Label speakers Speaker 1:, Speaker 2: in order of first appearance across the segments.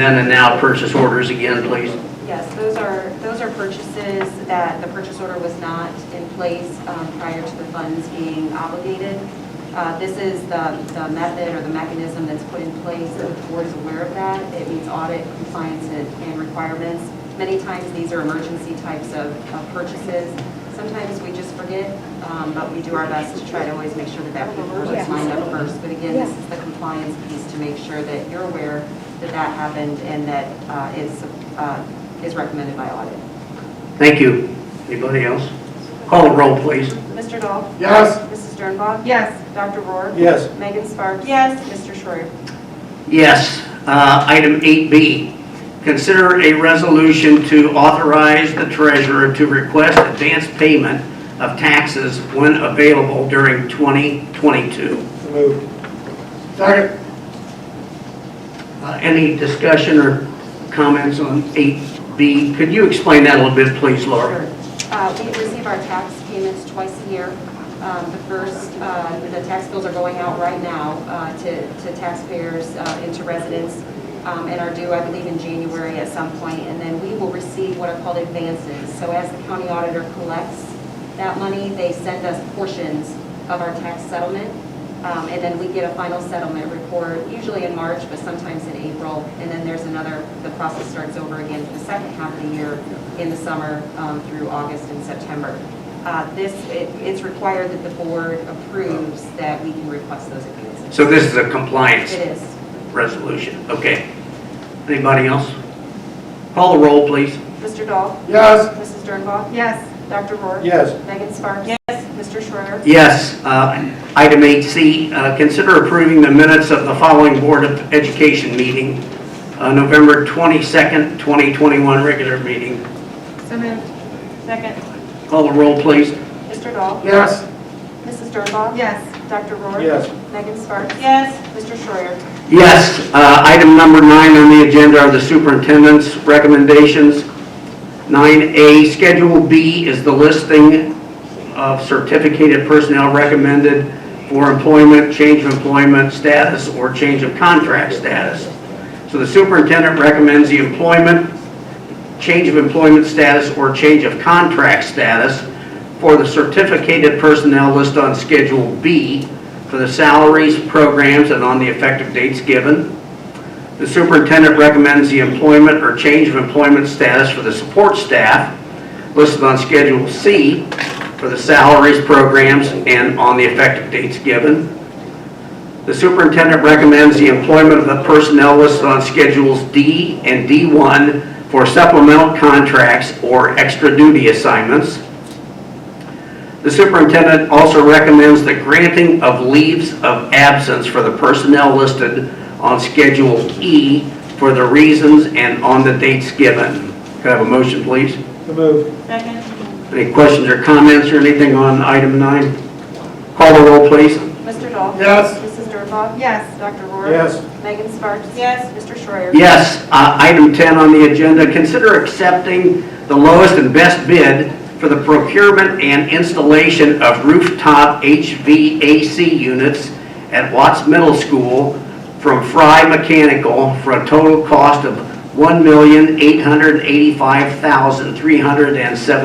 Speaker 1: Then and now purchase orders again, please.
Speaker 2: Yes, those are, those are purchases that the purchase order was not in place um, prior to the funds being obligated. Uh, This is the, the method or the mechanism that's put in place, the board is aware of that. It meets audit compliance and and requirements. Many times, these are emergency types of of purchases. Sometimes we just forget, um, but we do our best to try to always make sure that that paperwork is lined up first. But again, this is the compliance piece to make sure that you're aware that that happened and that uh, is, uh, is recommended by audit.
Speaker 1: Thank you. Anybody else? Call the roll, please.
Speaker 2: Mr. Dahl?
Speaker 3: Yes.
Speaker 2: Mrs. Sternbach?
Speaker 4: Yes.
Speaker 2: Dr. Rohr?
Speaker 3: Yes.
Speaker 2: Megan Sparks? Yes. Mr. Schreier?
Speaker 1: Yes. Uh, Item 8B, consider a resolution to authorize the treasurer to request advance payment of taxes when available during 2022.
Speaker 3: So moved. Second.
Speaker 1: Uh, Any discussion or comments on 8B? Could you explain that a little bit, please, Laura?
Speaker 2: Uh, We receive our tax payments twice a year. Um, The first, uh, the tax bills are going out right now uh, to to taxpayers, uh, into residents, um, and are due, I believe, in January at some point. And then we will receive what are called advances. So as the county auditor collects that money, they send us portions of our tax settlement. Um, And then we get a final settlement report, usually in March, but sometimes in April. And then there's another, the process starts over again for the second half of the year in the summer um, through August and September. Uh, This, it- it's required that the board approves that we can request those advances.
Speaker 1: So this is a compliance
Speaker 2: It is.
Speaker 1: resolution. Okay. Anybody else? Call the roll, please.
Speaker 2: Mr. Dahl?
Speaker 3: Yes.
Speaker 2: Mrs. Dernbaugh?
Speaker 4: Yes.
Speaker 2: Dr. Rohr?
Speaker 3: Yes.
Speaker 2: Megan Sparks? Yes. Mr. Schreier?
Speaker 1: Yes. uh, Item 8C, uh, consider approving the minutes of the following Board of Education meeting, uh, November 22nd, 2021, regular meeting.
Speaker 4: So moved.
Speaker 2: Second.
Speaker 1: Call the roll, please.
Speaker 2: Mr. Dahl?
Speaker 3: Yes.
Speaker 2: Mrs. Dernbaugh?
Speaker 4: Yes.
Speaker 2: Dr. Rohr?
Speaker 3: Yes.
Speaker 2: Megan Sparks? Yes. Mr. Schreier?
Speaker 1: Yes. uh, Item number nine on the agenda are the superintendent's recommendations. 9A, Schedule B is the listing of certificated personnel recommended for employment, change of employment status, or change of contract status. So the superintendent recommends the employment, change of employment status, or change of contract status for the certificated personnel list on Schedule B for the salaries, programs, and on the effective dates given. The superintendent recommends the employment or change of employment status for the support staff listed on Schedule C for the salaries, programs, and on the effective dates given. The superintendent recommends the employment of the personnel listed on Schedules D and D1 for supplemental contracts or extra duty assignments. The superintendent also recommends the granting of leaves of absence for the personnel listed on Schedule E for the reasons and on the dates given. Could I have a motion, please?
Speaker 3: So moved.
Speaker 2: Second.
Speaker 1: Any questions or comments or anything on item nine? Call the roll, please.
Speaker 2: Mr. Dahl?
Speaker 3: Yes.
Speaker 2: Mrs. Dernbaugh?
Speaker 4: Yes.
Speaker 2: Dr. Rohr?
Speaker 3: Yes.
Speaker 2: Megan Sparks? Yes. Mr. Schreier?
Speaker 1: Yes, uh, item 10 on the agenda, consider accepting the lowest and best bid for the procurement and installation of rooftop HVAC units at Watts Middle School from Fry Mechanical for a total cost of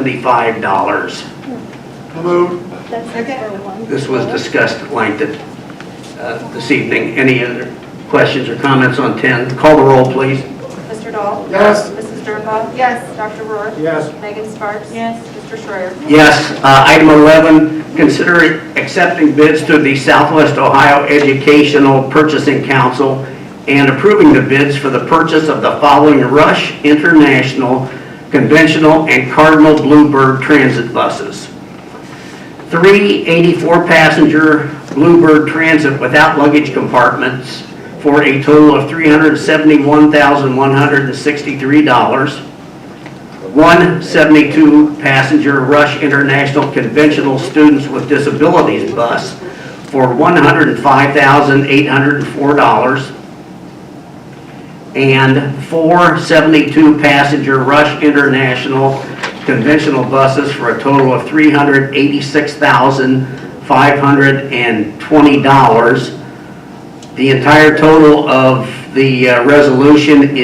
Speaker 1: $1,885,375.
Speaker 3: So moved.
Speaker 4: That's second.
Speaker 1: This was discussed at length uh, this evening. Any other questions or comments on 10? Call the roll, please.
Speaker 2: Mr. Dahl?
Speaker 3: Yes.
Speaker 2: Mrs. Dernbaugh?
Speaker 4: Yes.
Speaker 2: Dr. Rohr?
Speaker 3: Yes.
Speaker 2: Megan Sparks? Yes. Mr. Schreier?
Speaker 1: Yes. Uh, Item 11, consider accepting bids through the Southwest Ohio Educational Purchasing Council and approving the bids for the purchase of the following Rush International Conventional and Cardinal Bluebird Transit buses. Three 84-passenger Bluebird Transit without luggage compartments for a total of $371,163 one 72-passenger Rush International Conventional Students with Disabilities bus for $105,804, and four 72-passenger Rush International Conventional buses for a total of $386,520. The entire total of the uh, resolution is.